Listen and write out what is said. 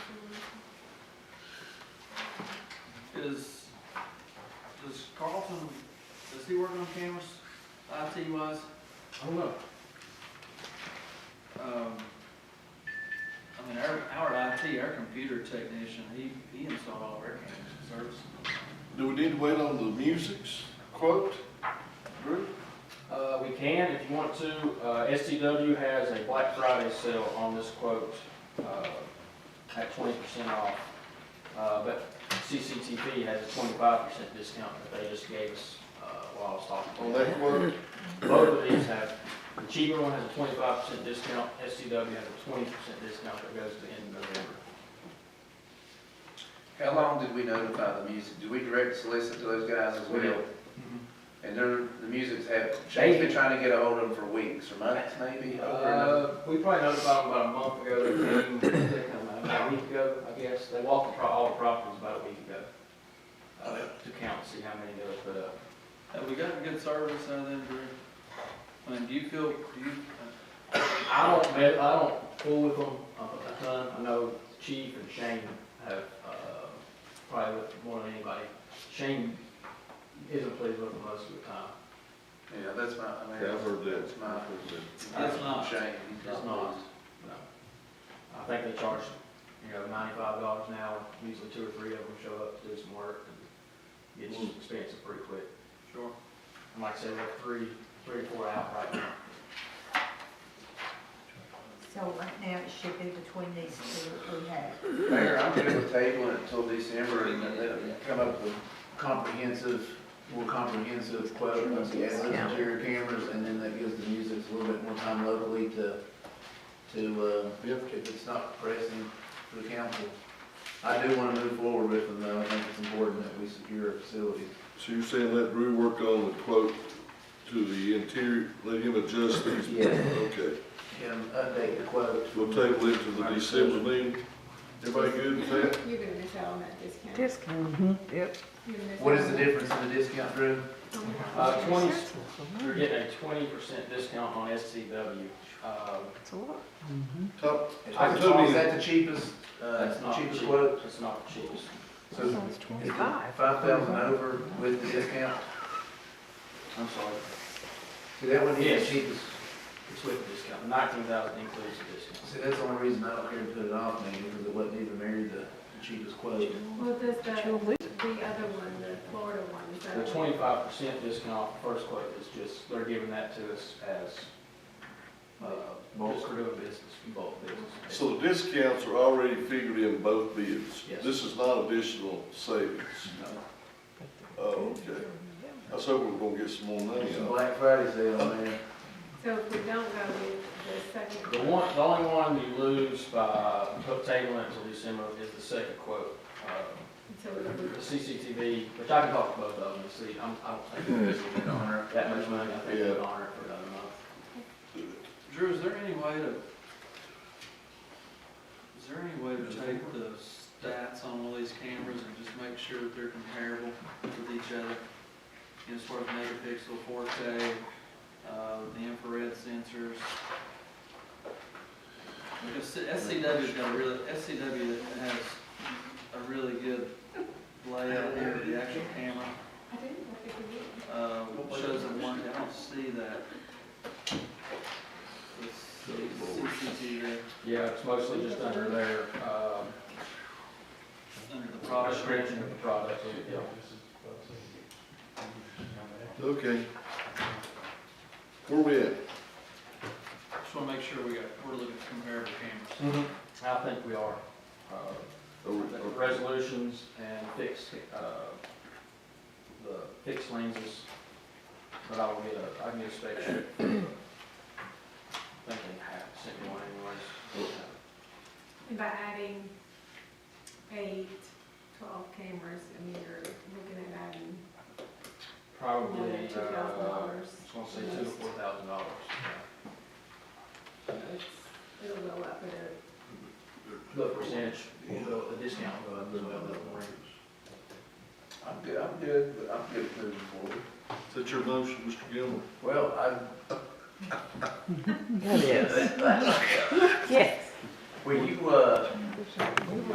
Does, does Carlton, does he work on cameras, IT wise? I don't know. Um, I mean, our, our IT, our computer technician, he, he installed all of our cameras and services. Do we need to wait on the music's quote, Drew? Uh, we can if you want to. Uh, STW has a Black Friday sale on this quote, uh, at twenty percent off. Uh, but CCTV has a twenty-five percent discount that they just gave us, uh, while I was talking. On that quote? Both of these have, the cheaper one has a twenty-five percent discount, STW has a twenty percent discount that goes to the end of November. How long did we notify the music? Did we direct solicit to those guys as We well? did. And they're, the music's had, Shane's been trying to get ahold of them for weeks or months maybe, over and over. Uh, we probably notified them about a month ago, they came, they come out about a week ago, I guess, they walked the pro- all the properties about a week ago. Uh, to count, see how many they would put up. Have we gotten good service out of them, Drew? I mean, do you feel, do you, uh, I don't, me- I don't fool with them uh, a ton, I know Chief and Shane have, uh, probably looked more than anybody. Shane isn't pleased with them most of the time, Yeah, that's my, I mean. Yeah, I've heard that. That's my, That's not. Shane, he's That's not. not. no. I think they charge, you know, ninety-five dollars an hour, usually two or three of them show up to do some work, and it's expensive pretty quick. sure? And like I said, we have three, three or four out right now. So right now, it should be between these two that we have. Mayor, I'm going to table it until December and then let them come up with comprehensive, more comprehensive quote once he adds those interior cameras and then that gives the music a little bit more time locally to, to, uh, if it's not pressing for the council. I do want to move forward with them though. I think it's important that we secure a facility. So you're saying let Drew work on the quote to the interior, let him adjust these? Yeah. Okay, Can update the quote. we'll table it to the December meeting. Everybody good with that? You're gonna miss out on that discount. You're gonna miss What out is on the that. difference in the discount, Drew? Uh, twenty, you're getting a twenty percent discount on SCW. Um, Top, Is that the cheapest, uh, that's not cheapest cheap, quote? that's not cheap. So Five thousand over with the discount? I'm sorry, See, that one here is Yes. cheapest. it's with the discount, nineteen thousand includes the discount. See, that's the only reason I don't care to put it off, maybe, because it wasn't even married the cheapest quote. Well, does the, the other one, the Florida one, is that? The twenty-five percent discount, first quote is just, they're giving that to us as, uh, just for doing business, bulk business. so the discounts are already figured in both bids. Yes. This is not additional savings. Oh, okay. I was hoping we we're gonna get some more money It's a out. Black Friday sale, man. So if we don't go with the second. The one, the only one you lose by tabling until December is the second quote. Uh, Until we The CCTV, which I can talk to both of them, and see, I'm, I don't think we're gonna honor that much money, I think we're gonna honor it for another month. Drew, is there any way to, is there any way to take the stats on all these cameras and just make sure that they're comparable with each other? You know, as far as megapixel, four K, uh, the infrared sensors. Because SCW's got a really, SCW has a really good layout here of the actual camera, I didn't, I think we did. uh, shows the one, I don't see that. The CCTV. Yeah, it's mostly just under their, um, Under the product range. description of the product, yeah. Okay. Where we at? Just wanna make sure we got, we're looking at comparable cameras. Mm-hmm. I think we are, uh, Are we- the are- resolutions and fixed, uh, the fixed lenses, but I will get a, I can get a spec sheet. I think they have sent me one anyways. And by adding eight, twelve cameras, I mean, you're looking at adding more Probably, than two thousand uh, dollars. It's gonna say two to four thousand dollars. It'll go up at The percentage, the the discount will go up as well, don't worry. I'm good, I'm good, but I'm good moving forward. Is that your motion, Mr. Gilmore? Well, I, Yes. Yes. will you, uh,